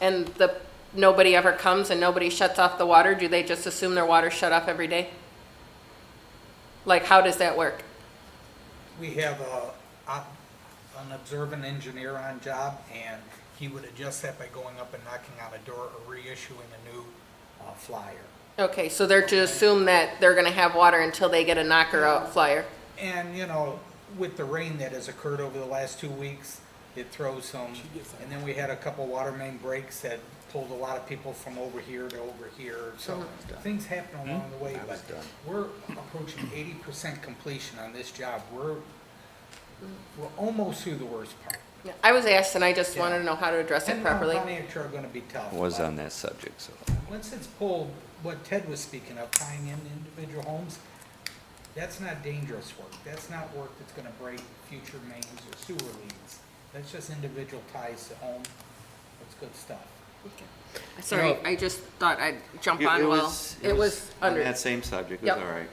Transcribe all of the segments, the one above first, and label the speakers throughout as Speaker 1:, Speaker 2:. Speaker 1: and the, nobody ever comes and nobody shuts off the water, do they just assume their water's shut off every day? Like, how does that work?
Speaker 2: We have a, a- an observant engineer on job, and he would adjust that by going up and knocking on a door or reissuing a new uh, flyer.
Speaker 1: Okay, so they're to assume that they're gonna have water until they get a knocker out flyer?
Speaker 2: And, you know, with the rain that has occurred over the last two weeks, it throws some, and then we had a couple water main breaks that pulled a lot of people from over here to over here, so things happen along the way, but we're approaching eighty percent completion on this job. We're, we're almost through the worst part.
Speaker 1: I was asked and I just wanted to know how to address it
Speaker 2: And the
Speaker 1: properly.
Speaker 2: Pontiacs are gonna be tough.
Speaker 3: was
Speaker 2: but
Speaker 3: on that subject, so.
Speaker 2: Once it's pulled, what Ted was speaking of, tying in individual homes, that's not dangerous work. That's not work that's gonna break future mains or sewer leads. That's just individual ties to home. That's good stuff.
Speaker 1: Sorry, I just thought I'd jump on while, it was
Speaker 3: On
Speaker 1: under,
Speaker 3: that same subject, it
Speaker 1: Yep.
Speaker 3: was all right.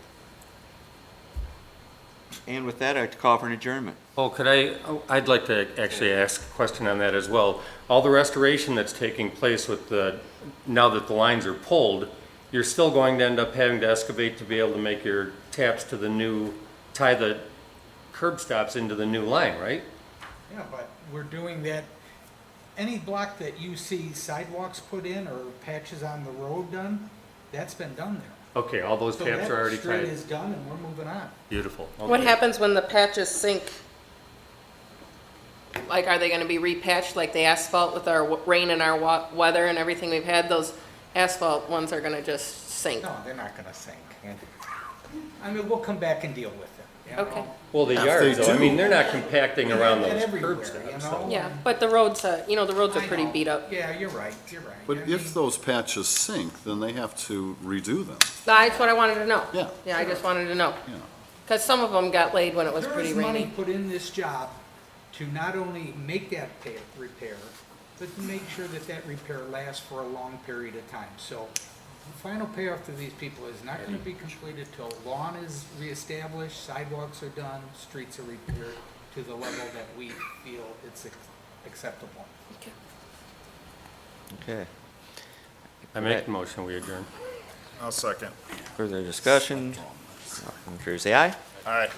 Speaker 3: And with that, I'd call for an adjournment.
Speaker 4: Oh, could I, oh, I'd like to actually ask a question on that as well. All the restoration that's taking place with the, now that the lines are pulled, you're still going to end up having to excavate to be able to make your taps to the new, tie the curb stops into the new line, right?
Speaker 2: Yeah, but we're doing that, any block that you see sidewalks put in or patches on the road done, that's been done there.
Speaker 4: Okay, all those
Speaker 2: So
Speaker 4: taps
Speaker 2: that
Speaker 4: are already
Speaker 2: street
Speaker 4: tied.
Speaker 2: is done and we're moving on.
Speaker 4: Beautiful.
Speaker 1: what
Speaker 4: Okay.
Speaker 1: happens when the patches sink? Like, are they gonna be repatched like the asphalt with our w- rain and our wa- weather and everything we've had? Those asphalt ones are gonna just sink.
Speaker 2: No, they're not gonna sink. I mean, we'll come back and deal with it. you know?
Speaker 1: Okay.
Speaker 4: Well, the yards, though, I mean, they're not compacting around
Speaker 2: And
Speaker 4: those
Speaker 2: everywhere,
Speaker 4: curb
Speaker 2: you
Speaker 4: stops.
Speaker 2: know?
Speaker 4: so-
Speaker 1: Yeah, but the roads, uh, you know, the roads are
Speaker 2: I
Speaker 1: pretty
Speaker 2: know.
Speaker 1: beat up.
Speaker 2: Yeah, you're right, you're right. I
Speaker 5: But
Speaker 2: mean,
Speaker 5: if those patches sink, then they have to redo them,
Speaker 1: That's what I wanted to know.
Speaker 5: Yeah.
Speaker 1: Yeah, I just wanted to know.
Speaker 5: you know.
Speaker 1: Cause some of them got laid when it was
Speaker 2: There
Speaker 1: pretty
Speaker 2: is money
Speaker 1: rainy.
Speaker 2: put in this job to not only make that pa- repair, but to make sure that that repair lasts for a long period of time. So the final payoff to these people is not gonna be completed till lawn is reestablished, sidewalks are done, streets are repaired to the level that we feel it's ac- acceptable.
Speaker 3: Okay.
Speaker 4: I make the motion, we adjourn.
Speaker 6: I'll second.
Speaker 3: Further discussion? All in favor, say aye.
Speaker 6: All right.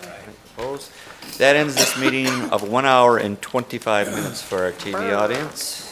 Speaker 3: Opposed? That ends this meeting of one hour and 25 minutes for our TV audience.